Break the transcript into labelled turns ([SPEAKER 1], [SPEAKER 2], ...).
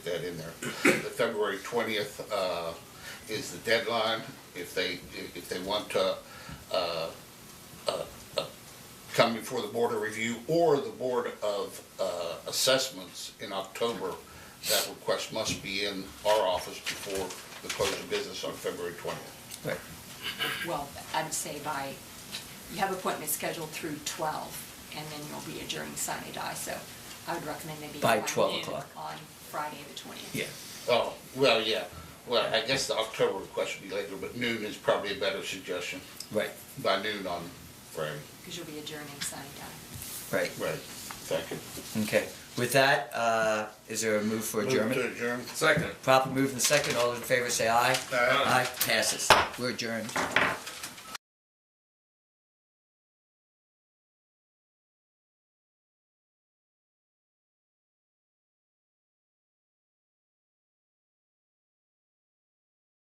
[SPEAKER 1] that in there. The February twentieth, uh, is the deadline, if they, if if they want to, uh, uh, uh, come before the Board of Review or the Board of, uh, Assessments in October, that request must be in our office before the close of business on February twentieth.
[SPEAKER 2] Right.
[SPEAKER 3] well, I'd say by, you have appointments scheduled through twelve, and then you'll be adjourning sine die, so I would recommend maybe.
[SPEAKER 2] By
[SPEAKER 3] around
[SPEAKER 2] 12
[SPEAKER 3] noon
[SPEAKER 2] o'clock.
[SPEAKER 3] On Friday the twentieth.
[SPEAKER 2] Yeah.
[SPEAKER 1] Oh, well, yeah, well, I guess the October request would be later, but noon is probably a better suggestion,
[SPEAKER 2] Right.
[SPEAKER 1] by noon on Friday.
[SPEAKER 3] Because you'll be adjourning sine die.
[SPEAKER 2] Right.
[SPEAKER 1] Right, thank you.
[SPEAKER 2] Okay. With that, uh, is there a move for
[SPEAKER 1] Move to
[SPEAKER 2] adjournment?
[SPEAKER 1] adjourn.
[SPEAKER 4] Second.
[SPEAKER 2] Proper move and second. All those in favor say aye.
[SPEAKER 1] Aye.
[SPEAKER 2] Aye. Passes. We're adjourned.